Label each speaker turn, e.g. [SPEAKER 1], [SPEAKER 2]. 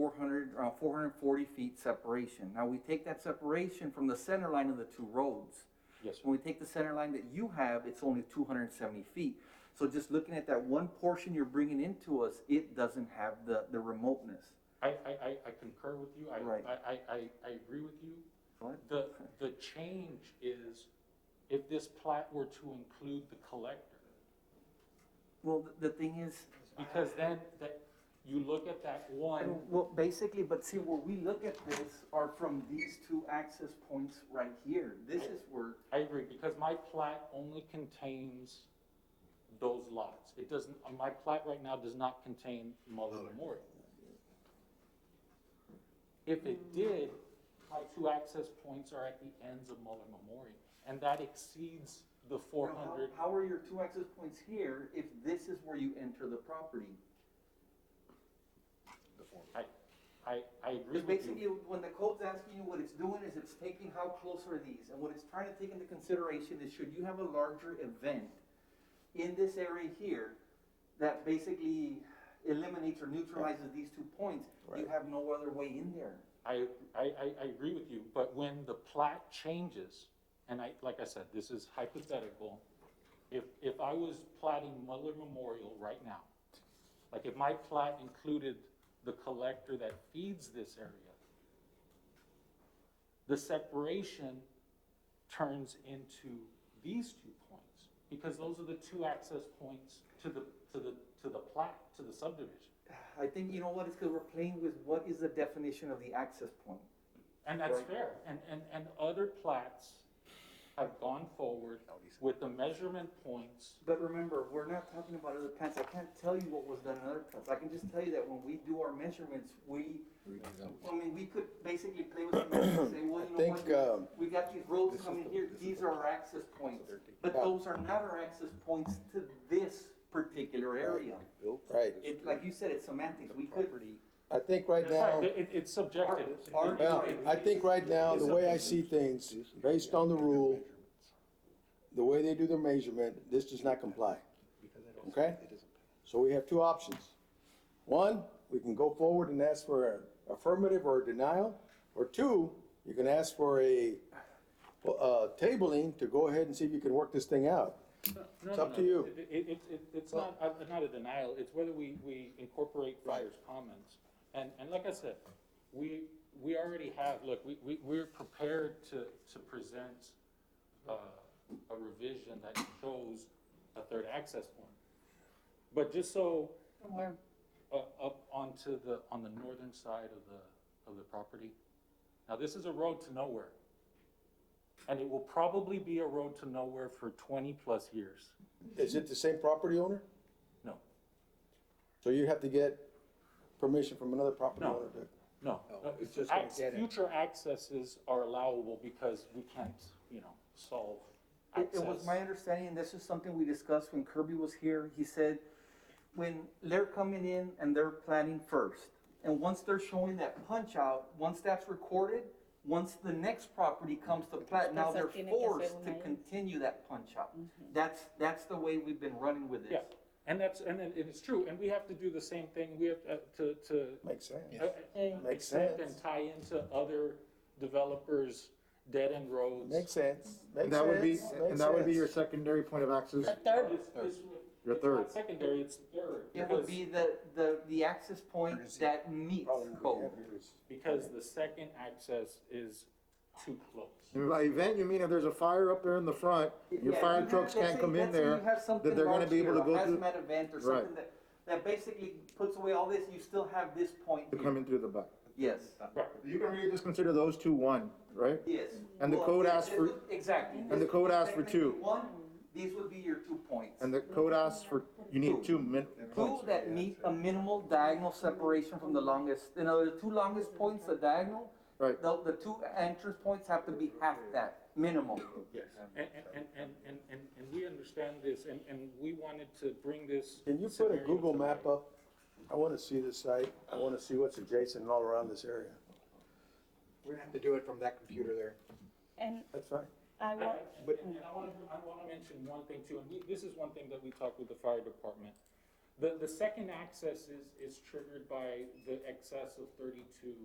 [SPEAKER 1] four hundred, uh, four hundred and forty feet separation. Now, we take that separation from the center line of the two roads.
[SPEAKER 2] Yes, sir.
[SPEAKER 1] When we take the center line that you have, it's only two hundred and seventy feet. So just looking at that one portion you're bringing into us, it doesn't have the, the remoteness.
[SPEAKER 2] I, I, I, I concur with you, I,
[SPEAKER 1] Right.
[SPEAKER 2] I, I, I, I agree with you.
[SPEAKER 1] What?
[SPEAKER 2] The, the change is if this plat were to include the collector,
[SPEAKER 1] Well, the the thing is,
[SPEAKER 2] because then that, you look at that one,
[SPEAKER 1] well, basically, but see, where we look at this are from these two access points right here. This is where,
[SPEAKER 2] I agree, because my plat only contains those lots. It doesn't, uh, my plat right now does not contain Muller Memorial. If it did, my two access points are at the ends of Muller Memorial, and that exceeds the
[SPEAKER 1] you
[SPEAKER 2] four
[SPEAKER 1] know,
[SPEAKER 2] hundred.
[SPEAKER 1] how, how are your two access points here if this is where you enter the property?
[SPEAKER 2] I, I, I agree
[SPEAKER 1] Because
[SPEAKER 2] with
[SPEAKER 1] basically,
[SPEAKER 2] you.
[SPEAKER 1] when the code's asking you, what it's doing is it's taking how close are these, and what it's trying to take into consideration is should you have a larger event in this area here that basically eliminates or neutralizes these two points, you have no other way in there.
[SPEAKER 2] I, I, I, I agree with you, but when the plat changes, and I, like I said, this is hypothetical. If, if I was platting Muller Memorial right now, like if my plat included the collector that feeds this area, the separation turns into these two points, because those are the two access points to the, to the, to the plat, to the subdivision.
[SPEAKER 1] I think, you know what, it's because we're playing with what is the definition of the access point.
[SPEAKER 2] And that's
[SPEAKER 1] Right.
[SPEAKER 2] fair, and, and, and other plats have gone forward with the measurement points.
[SPEAKER 1] But remember, we're not talking about other plants, I can't tell you what was done in other plants, I can just tell you that when we do our measurements, we, I mean, we could basically play with some numbers and say, well,
[SPEAKER 3] I
[SPEAKER 1] you know
[SPEAKER 3] think, um,
[SPEAKER 1] what? We got these roads
[SPEAKER 3] this
[SPEAKER 1] coming
[SPEAKER 3] is the-
[SPEAKER 1] here,
[SPEAKER 3] this is
[SPEAKER 1] these
[SPEAKER 3] the-
[SPEAKER 1] are our access points, but
[SPEAKER 3] Yeah.
[SPEAKER 1] those are not our access points to this particular area.
[SPEAKER 3] Right,
[SPEAKER 1] It, like you said, it's semantics, we could.
[SPEAKER 3] I think right
[SPEAKER 2] That's right,
[SPEAKER 3] now,
[SPEAKER 2] it- it- it's subjective.
[SPEAKER 1] Our- our-
[SPEAKER 3] well, I think right now, the way I see things, based on the rule, the way they do their measurement, this does not comply. Okay? So we have two options. One, we can go forward and ask for an affirmative or a denial, or two, you can ask for a, uh, tabling to go ahead and see if you can work this thing out.
[SPEAKER 2] No,
[SPEAKER 3] It's
[SPEAKER 2] no,
[SPEAKER 3] up to
[SPEAKER 2] no,
[SPEAKER 3] you.
[SPEAKER 2] It, it, it- it- it's not, uh, not a denial, it's whether we, we incorporate Fryer's comments. And, and like I said, we, we already have, look, we, we, we're prepared to, to present, uh, a revision that shows a third access point. But just so, uh, up onto the, on the northern side of the, of the property. Now, this is a road to nowhere. And it will probably be a road to nowhere for twenty-plus years.
[SPEAKER 3] Is it the same property owner?
[SPEAKER 2] No,
[SPEAKER 3] So you have to get permission from another property
[SPEAKER 2] No.
[SPEAKER 3] owner to?
[SPEAKER 2] no.
[SPEAKER 4] No, it's
[SPEAKER 2] Uh,
[SPEAKER 4] just gonna
[SPEAKER 2] acc-
[SPEAKER 4] get it.
[SPEAKER 2] Future accesses are allowable because we can't, you know, solve
[SPEAKER 1] It,
[SPEAKER 2] access.
[SPEAKER 1] it was my understanding, and this is something we discussed when Kirby was here, he said, when they're coming in and they're planning first, and once they're showing that punch out, once that's recorded, once the next property comes to plat, now
[SPEAKER 5] Las
[SPEAKER 1] they're
[SPEAKER 5] cosas tienen que ser
[SPEAKER 1] forced to
[SPEAKER 5] una-
[SPEAKER 1] continue that punch out. That's, that's the way we've been running with
[SPEAKER 2] Yeah,
[SPEAKER 1] this.
[SPEAKER 2] and that's, and then it is true, and we have to do the same thing, we have uh, to, to
[SPEAKER 3] Makes sense.
[SPEAKER 2] Uh, uh,
[SPEAKER 3] Makes
[SPEAKER 2] accept
[SPEAKER 3] sense.
[SPEAKER 2] And tie into other developers' dead-end roads.
[SPEAKER 3] Makes sense. Makes
[SPEAKER 6] And that would be,
[SPEAKER 3] sense. Makes
[SPEAKER 6] and that would be your
[SPEAKER 3] sense.
[SPEAKER 6] secondary point of access.
[SPEAKER 5] The third,
[SPEAKER 2] It's- it's-
[SPEAKER 6] Your
[SPEAKER 2] it's not
[SPEAKER 6] third.
[SPEAKER 2] Secondary, it's third.
[SPEAKER 1] It would
[SPEAKER 2] because-
[SPEAKER 1] be the, the, the access point that meets both.
[SPEAKER 6] Oh.
[SPEAKER 2] Because the second access is too close.
[SPEAKER 6] And By event, you mean if there's a fire up there in the front, your
[SPEAKER 1] Yeah, you
[SPEAKER 6] fire
[SPEAKER 1] have-
[SPEAKER 6] trucks
[SPEAKER 1] let's
[SPEAKER 6] can't
[SPEAKER 1] say-
[SPEAKER 6] come in
[SPEAKER 1] let's say you
[SPEAKER 6] there,
[SPEAKER 1] have something
[SPEAKER 6] that they're gonna
[SPEAKER 1] large
[SPEAKER 6] be able to
[SPEAKER 1] here, a
[SPEAKER 6] go through,
[SPEAKER 1] Hazmat event or
[SPEAKER 6] Right.
[SPEAKER 1] something that, that basically puts away all this, you still have this point
[SPEAKER 6] to
[SPEAKER 1] here.
[SPEAKER 6] come in through the back.
[SPEAKER 1] Yes,
[SPEAKER 2] Right.
[SPEAKER 6] You can really just consider those two one, right?
[SPEAKER 1] yes.
[SPEAKER 6] And the
[SPEAKER 1] Well,
[SPEAKER 6] code
[SPEAKER 1] this-
[SPEAKER 6] asks
[SPEAKER 1] this
[SPEAKER 6] for-
[SPEAKER 1] would- Exactly.
[SPEAKER 6] the
[SPEAKER 1] This
[SPEAKER 6] code
[SPEAKER 1] would be
[SPEAKER 6] asks for two.
[SPEAKER 1] technically One, these would be your two points.
[SPEAKER 6] And the code asks for, you need two min,
[SPEAKER 1] Two that meet a minimal diagonal separation from the longest, you know, the two longest points, the diagonal,
[SPEAKER 6] right?
[SPEAKER 1] the, the two entrance points have to be half that, minimum.
[SPEAKER 2] Yes. And, and, and, and, and, and we understand this, and, and we wanted to bring this.
[SPEAKER 3] Can you put a
[SPEAKER 2] scenario
[SPEAKER 3] Google
[SPEAKER 2] to
[SPEAKER 3] map
[SPEAKER 2] light.
[SPEAKER 3] up? I wanna see the site. I wanna see what's adjacent and all around this area.
[SPEAKER 4] We're gonna have to do it from that computer there.
[SPEAKER 5] and
[SPEAKER 3] That's fine.
[SPEAKER 5] I
[SPEAKER 2] And
[SPEAKER 5] want,
[SPEAKER 2] and I want to, I want to mention one thing too, and we- this is one thing that we talked with the fire department. The, the second access is, is triggered by the excess of thirty-two